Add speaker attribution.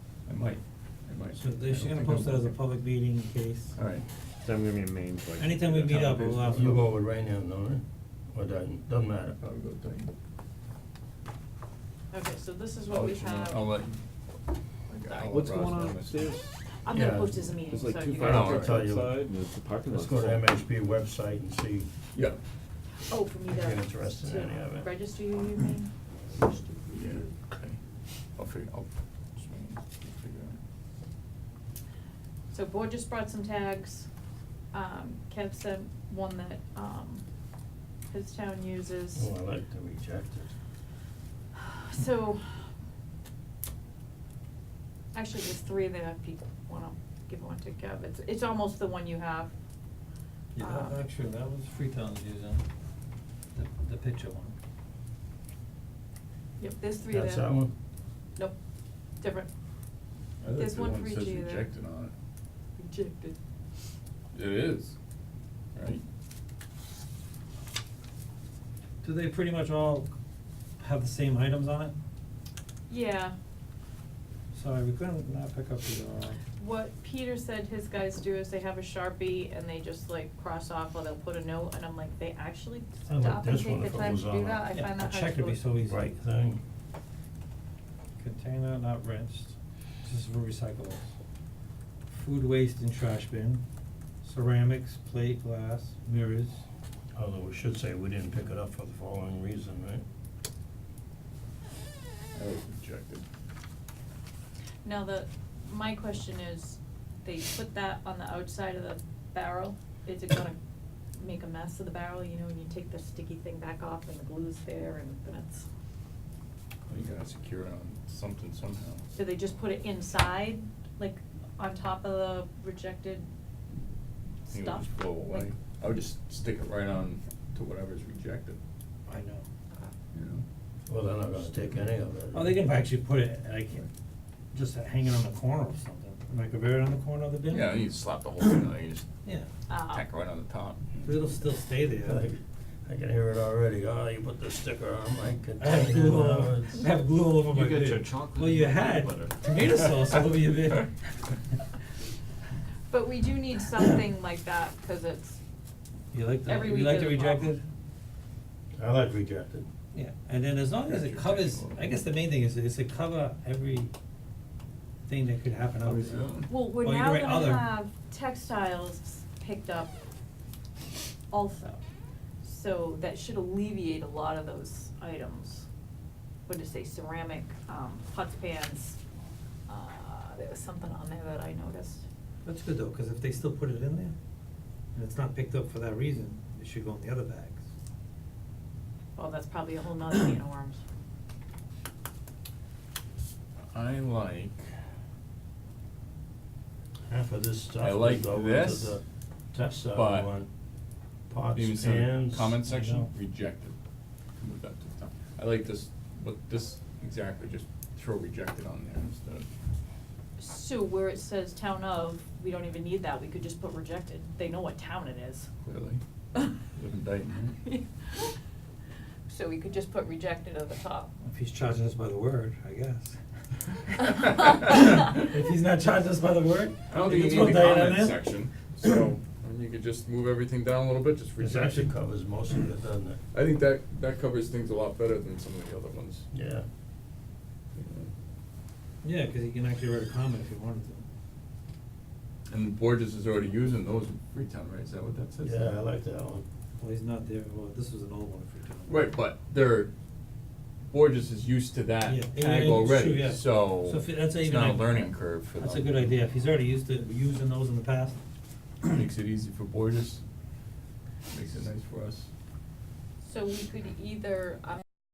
Speaker 1: might, it might.
Speaker 2: So
Speaker 1: I
Speaker 2: they should
Speaker 1: don't
Speaker 2: gonna
Speaker 1: think
Speaker 2: post
Speaker 1: I'm-
Speaker 2: that as a public meeting in case.
Speaker 1: Alright,
Speaker 3: So I'm gonna be a main like.
Speaker 2: Anytime we meet up, we'll have
Speaker 4: You go with Rainham, no, right? Or Dayton, doesn't matter.
Speaker 1: I'll go with Dayton.
Speaker 5: Okay, so this is
Speaker 1: I'll
Speaker 5: what we
Speaker 1: let you know.
Speaker 5: have.
Speaker 1: I'll let.
Speaker 6: What's going on upstairs?
Speaker 5: I'm gonna
Speaker 4: Yeah.
Speaker 5: post as a meeting,
Speaker 6: There's
Speaker 5: so you
Speaker 6: like two
Speaker 5: guys-
Speaker 6: fire
Speaker 4: I'll
Speaker 6: trucks
Speaker 4: tell you.
Speaker 6: outside and it's the parking lot.
Speaker 4: Let's go to MHP website and see,
Speaker 1: Yeah.
Speaker 5: Oh, for me to.
Speaker 4: Get interested in any of
Speaker 5: to
Speaker 4: it.
Speaker 5: Register you, you mean?
Speaker 1: Yeah, okay. I'll figure, I'll, figure out.
Speaker 5: So Board just brought some tags. Um, Kev sent one that, um, his town uses.
Speaker 4: oh, I like to reject it.
Speaker 5: So, actually, there's three of them, if you wanna give one to Kev, it's, it's almost the one you have.
Speaker 2: Yeah,
Speaker 5: Um,
Speaker 2: that, actually, that was Freetown's using, the, the picture one.
Speaker 5: Yep, there's three of them.
Speaker 4: That's that one?
Speaker 5: Nope, different,
Speaker 1: I like
Speaker 5: There's
Speaker 1: the
Speaker 5: one
Speaker 1: one
Speaker 5: for
Speaker 1: that
Speaker 5: each
Speaker 1: says
Speaker 5: of you there.
Speaker 1: rejected on it.
Speaker 5: rejected.
Speaker 1: It is, right?
Speaker 2: Do they pretty much all have the same items on it?
Speaker 5: Yeah,
Speaker 2: Sorry, we couldn't not pick up the, uh,
Speaker 5: what Peter said his guys do is they have a Sharpie and they just like cross off or they'll put a note, and I'm like, they actually
Speaker 4: I like
Speaker 5: stop and
Speaker 4: this one
Speaker 5: take the
Speaker 4: if it
Speaker 5: time
Speaker 4: was
Speaker 5: to do
Speaker 4: on
Speaker 5: that,
Speaker 4: a-
Speaker 5: I
Speaker 2: yeah,
Speaker 5: find
Speaker 2: a
Speaker 5: that hard to.
Speaker 2: check would be so easy.
Speaker 4: Right thing.
Speaker 2: Container not rinsed, this is for recyclables. Food waste and trash bin, ceramics, plate, glass, mirrors.
Speaker 4: Although we should say we didn't pick it up for the following reason, right?
Speaker 1: I like rejected.
Speaker 5: Now, the, my question is, they put that on the outside of the barrel, is it gonna make a mess of the barrel, you know, when you take the sticky thing back off and the glue's there and then it's,
Speaker 1: Well, You gotta secure it on something somehow.
Speaker 5: do they just put it inside, like, on top of the rejected
Speaker 1: I think it would
Speaker 5: stuff?
Speaker 1: just blow away.
Speaker 5: Like-
Speaker 1: I would just stick it right on to whatever's rejected,
Speaker 2: I know.
Speaker 1: you know?
Speaker 4: Well, they're not gonna take any of it.
Speaker 2: Oh, they can actually put it like, just hanging on the corner or something, like a very on the corner of the bin.
Speaker 1: Yeah, you just slap the whole thing on, it, you just
Speaker 2: Yeah,
Speaker 5: Ah.
Speaker 1: tack it right on the top.
Speaker 2: but it'll still stay there.
Speaker 4: Like, I can hear it already, oh, you put the sticker on my
Speaker 2: I have
Speaker 4: container,
Speaker 2: glue all
Speaker 4: now
Speaker 2: over,
Speaker 4: it's.
Speaker 2: I have glue all over my
Speaker 6: You
Speaker 2: bid.
Speaker 6: got your chocolate
Speaker 2: Well, you
Speaker 6: and peanut
Speaker 2: had
Speaker 6: butter.
Speaker 2: tomato sauce all over your bid.
Speaker 5: But we do need something like that, cause it's,
Speaker 2: You like the,
Speaker 5: Every
Speaker 2: you
Speaker 5: week
Speaker 2: like
Speaker 5: is
Speaker 2: the
Speaker 5: a problem.
Speaker 2: rejected?
Speaker 4: I like rejected.
Speaker 2: Yeah, and then as long as it
Speaker 1: Rejected
Speaker 2: covers,
Speaker 1: or-
Speaker 2: I guess the main thing is, is to cover every thing that could happen out there.
Speaker 1: Yeah.
Speaker 5: well, we're
Speaker 2: Or you
Speaker 5: now
Speaker 2: can write other.
Speaker 5: gonna have textiles picked up also. So that should alleviate a lot of those items. What did it say, ceramic, um, pots, pans, uh, there was something on there that I noticed.
Speaker 2: That's good though, cause if they still put it in there, and it's not picked up for that reason, it should go in the other bags.
Speaker 5: Well, that's probably a whole nother can of worms.
Speaker 1: I like,
Speaker 4: Half of this stuff
Speaker 1: I
Speaker 4: would
Speaker 1: like
Speaker 4: go into
Speaker 1: this,
Speaker 4: the test side
Speaker 1: but-
Speaker 4: one, pots,
Speaker 1: even
Speaker 4: pans.
Speaker 1: so, comment
Speaker 4: you
Speaker 1: section,
Speaker 4: know.
Speaker 1: rejected. Move that to the top. I like this, what, this, exactly, just throw rejected on there instead of,
Speaker 5: So where it says town of, we don't even need that, we could just put rejected, they know what town it is.
Speaker 1: clearly. Live in Dayton, right?
Speaker 5: So we could just put rejected at the top.
Speaker 2: If he's charging us by the word, I guess.
Speaker 5: If
Speaker 2: If he's not charging us by the word,
Speaker 1: I don't
Speaker 2: if
Speaker 1: think
Speaker 2: it's
Speaker 1: you
Speaker 2: one
Speaker 1: need the
Speaker 2: day in
Speaker 1: comment
Speaker 2: there-
Speaker 1: section, so, and you could just move everything down a little bit, just
Speaker 4: This
Speaker 1: reject
Speaker 4: actually
Speaker 1: it.
Speaker 4: covers most of it, doesn't it?
Speaker 1: I think that, that covers things a lot better than some of the other ones.
Speaker 4: Yeah.
Speaker 1: you know.
Speaker 2: Yeah, cause you can actually write a comment if you wanted to.
Speaker 1: And Borges is already using those in Freetown, right, is that what that says?
Speaker 4: Yeah, I like that one.
Speaker 2: Well, he's not there, well, this was an old one for town.
Speaker 1: Right, but they're, Borges is used to that
Speaker 2: Yeah, yeah,
Speaker 1: tag
Speaker 2: it's true,
Speaker 1: already,
Speaker 2: yeah.
Speaker 1: so
Speaker 2: So if it- that's
Speaker 1: it's
Speaker 2: even
Speaker 1: not a
Speaker 2: like-
Speaker 1: learning curve for them.
Speaker 2: That's a good idea, if he's already used to using those in the past.
Speaker 1: Makes it easy for Borges, makes it nice for us.
Speaker 5: So we could either, um,